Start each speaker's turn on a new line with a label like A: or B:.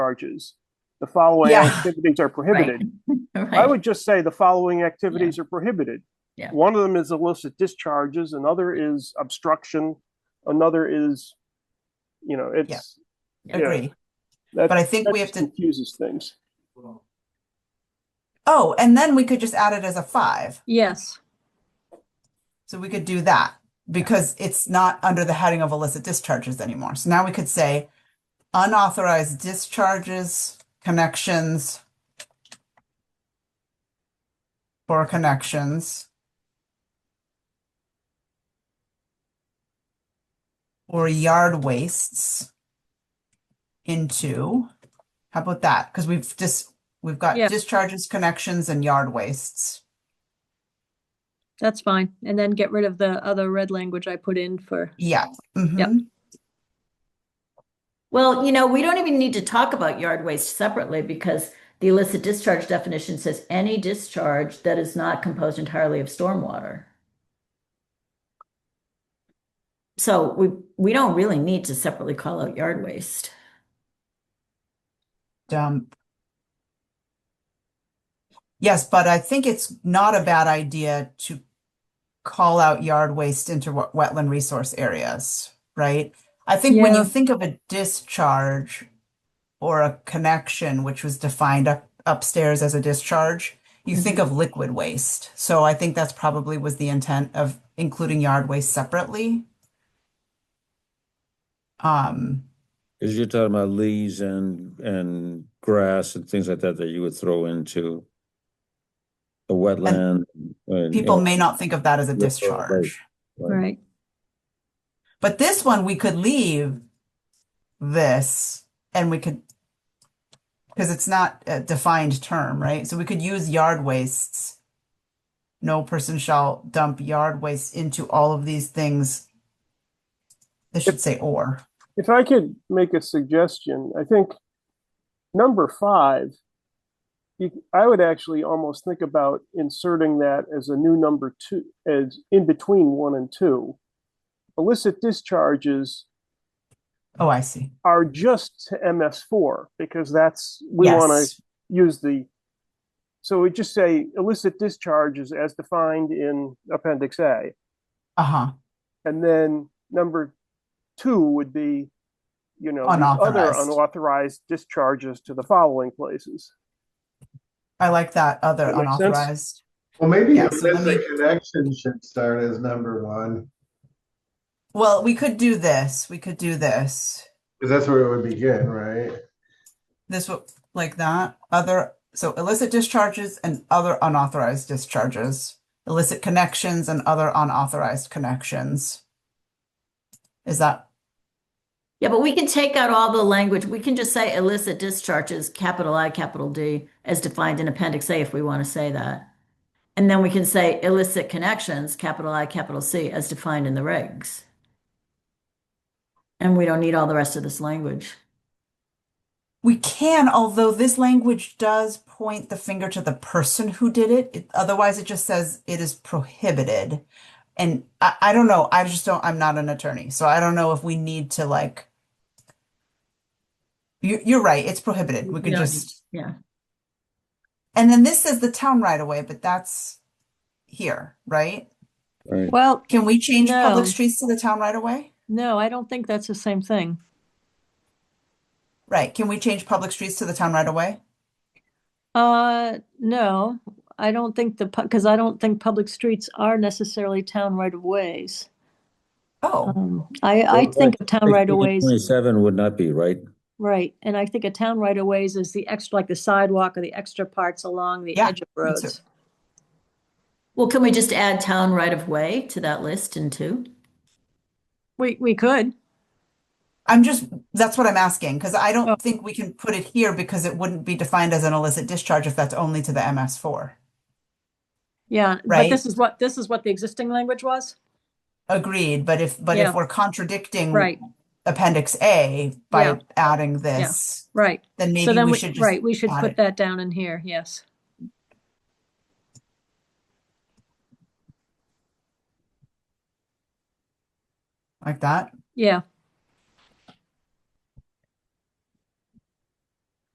A: charges. The following
B: Yeah.
A: activities are prohibited. I
B: Right,
A: would just say the following activities are prohibited.
B: Yeah.
A: One of them is illicit discharges, another is obstruction, another is, you know, it's,
B: agree.
A: that
B: But I think
A: that
B: we have
A: just
B: to-
A: Confuses things.
B: Oh, and then we could just add it as a five.
C: Yes,
B: So we could do that because it's not under the heading of illicit discharges anymore. So now we could say unauthorized discharges, connections for connections or yard wastes into, how about that? Because we've just, we've got
C: Yeah.
B: discharges, connections, and yard wastes.
C: that's fine. And then get rid of the other red language I put in for,
B: Yeah.
C: Yep.
B: mhm.
D: Well, you know, we don't even need to talk about yard waste separately because the illicit discharge definition says any discharge that is not composed entirely of stormwater. So we, we don't really need to separately call out yard waste.
B: Dump. Yes, but I think it's not a bad idea to call out yard waste into wet- wetland resource areas, right? I think when you
C: Yeah.
B: think of a discharge or a connection, which was defined up upstairs as a discharge, you think of liquid waste. So I think that's probably was the intent of including yard waste separately. Um,
E: Because you're talking about leaves and, and grass and things like that that you would throw into the wetland. and, you
B: people
E: know,
B: may not think of that as a
E: Liquid
B: discharge.
E: waste.
C: right?
B: But this one, we could leave this and we could, because it's not a defined term, right? So we could use yard wastes. No person shall dump yard waste into all of these things. This should say or.
A: If I could make a suggestion, I think number five, you, I would actually almost think about inserting that as a new number two, as in between one and two. Illicit discharges
B: Oh, I see.
A: are just to MS4 because that's, we want to
B: Yes.
A: use the, so we just say illicit discharges as defined in Appendix A.
B: Uh-huh.
A: And then number two would be, you know, these other
B: Unauthorized.
A: unauthorized discharges to the following places.
B: I like that other
A: That makes sense.
B: unauthorized.
F: Well, maybe
B: Yeah, so let
F: illicit
B: me-
F: connection should start as number one,
B: Well, we could do this. We could do this.
F: because that's where it would begin, right?
B: This would like that. Other so illicit discharges and other unauthorized discharges, illicit connections and other unauthorized connections. Is that
D: Yeah, but we can take out all the language. We can just say illicit discharges, capital I, capital D, as defined in Appendix A if we want to say that. And then we can say illicit connections, capital I, capital C, as defined in the regs. And we don't need all the rest of this language.
B: we can, although this language does point the finger to the person who did it. It- otherwise, it just says it is prohibited. And I, I don't know. I just don't, I'm not an attorney. So I don't know if we need to like. You, you're right. It's prohibited. We could
D: Yeah.
B: just.
D: Yeah.
B: And then this says the town right away, but that's here, right?
E: Right, right.
C: Well,
B: Can we change
C: No.
B: public streets to the town right away?
C: no, I don't think that's the same thing.
B: Right, can we change public streets to the town right away?
C: Uh, no, I don't think the, because I don't think public streets are necessarily town right of ways.
B: Oh,
C: Um, I, I
E: Well,
C: think of town right of ways,
E: Twenty-seven would not be, right?
C: right, and I think a town right of ways is the extra, like the sidewalk or the extra parts along the
B: Yeah,
C: edge of
B: me too.
C: roads.
D: Well, can we just add town right of way to that list in two?
C: We, we could,
B: I'm just, that's what I'm asking, because I
C: Oh.
B: don't think we can put it here because it wouldn't be defined as an illicit discharge if that's only to the MS four.
C: yeah, but
B: Right.
C: this is what, this is what the existing language was?
B: Agreed, but if, but if
C: Yeah.
B: we're contradicting
C: Right,
B: Appendix A by
C: Yeah.
B: adding this,
C: right.
B: then
C: So
B: maybe
C: then
B: we
C: we,
B: should just
C: right, we should
B: add
C: put
B: it.
C: that down in here, yes.
B: like that.
C: Yeah,